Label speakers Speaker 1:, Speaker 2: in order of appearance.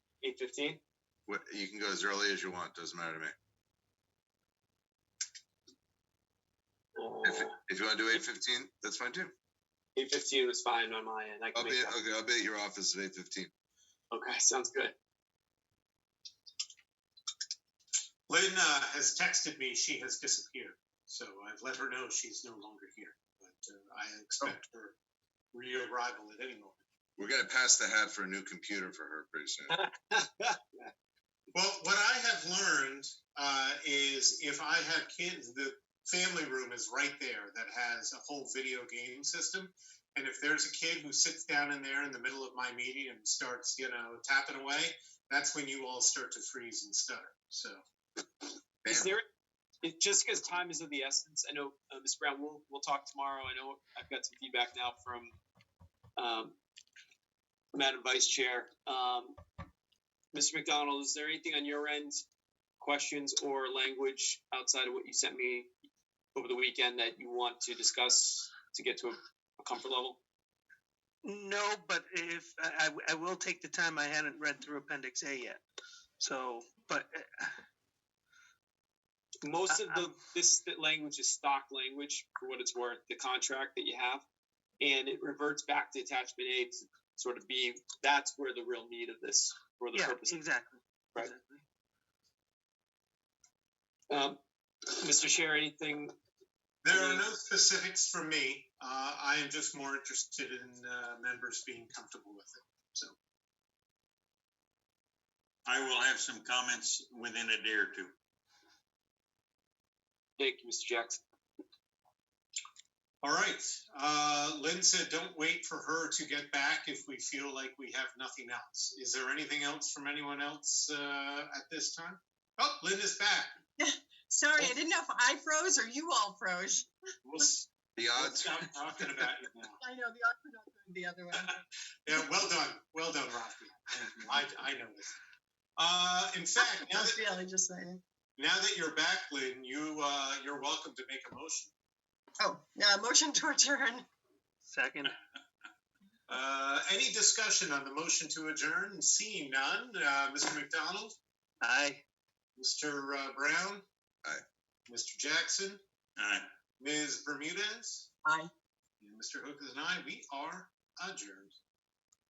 Speaker 1: eight fifteen?
Speaker 2: What, you can go as early as you want, doesn't matter to me. If, if you want to do eight fifteen, that's fine too.
Speaker 1: Eight fifteen was fine on my end. I
Speaker 2: I'll
Speaker 1: can
Speaker 2: be,
Speaker 1: make that.
Speaker 2: okay, I'll be at your office at eight fifteen.
Speaker 1: Okay, sounds good.
Speaker 3: Lynn uh, has texted me she has disappeared, so I've let her know she's no longer here. But uh, I expect her rearrival at any moment.
Speaker 2: We're gonna pass the hat for a new computer for her pretty soon.
Speaker 3: Well, what I have learned uh, is if I have kids, the family room is right there that has a whole video game system. And if there's a kid who sits down in there in the middle of my meeting and starts, you know, tapping away, that's when you all start to freeze and stutter. So,
Speaker 1: Is
Speaker 2: Bam.
Speaker 1: there, it, just because time is of the essence, I know, uh, Ms. Brown, we'll, we'll talk tomorrow. I know I've got some feedback now from, um, Madam Vice Chair. Um, Mr. McDonald, is there anything on your end, questions or language outside of what you sent me over the weekend that you want to discuss to get to a, a comfort level?
Speaker 4: No, but if, I, I- I will take the time, I hadn't read through Appendix A yet. So, but uh,
Speaker 1: Most of the
Speaker 4: Um,
Speaker 1: this that language is stock language for what it's worth, the contract that you have, and it reverts back to attachment A to sort of be that's where the real need of this for the
Speaker 4: yeah,
Speaker 1: purpose.
Speaker 4: exactly.
Speaker 1: Right.
Speaker 4: exactly.
Speaker 1: Um, Mr. Chair, anything?
Speaker 3: There are no specifics for me. Uh, I am just more interested in uh, members being comfortable with it. So
Speaker 5: I will have some comments within a day or two.
Speaker 1: Thank you, Mr. Jackson.
Speaker 3: All right. Uh, Lynn said, don't wait for her to get back if we feel like we have nothing else. Is there anything else from anyone else uh, at this time? Oh, Lynn is back.
Speaker 6: Sorry, I didn't know if I froze or you all froze.
Speaker 3: We'll, s-
Speaker 2: The
Speaker 3: we'll
Speaker 2: odds,
Speaker 3: stop talking about you now.
Speaker 6: I know the other not doing the other one.
Speaker 3: Yeah, well done. Well done, Rafi. I, I know this. Uh, in fact, now
Speaker 6: I
Speaker 3: that,
Speaker 6: feel it just saying.
Speaker 3: now that you're back, Lynn, you, uh, you're welcome to make a motion.
Speaker 6: Oh, yeah, motion to adjourn.
Speaker 4: Second,
Speaker 3: Uh, any discussion on the motion to adjourn? Seeing none, uh, Mr. McDonald,
Speaker 4: aye.
Speaker 3: Mr. uh, Brown?
Speaker 2: Aye.
Speaker 3: Mr. Jackson,
Speaker 5: All right.
Speaker 3: Ms. Bermudez,
Speaker 6: Aye.
Speaker 3: and Mr. Hookers and I, we are adjourned.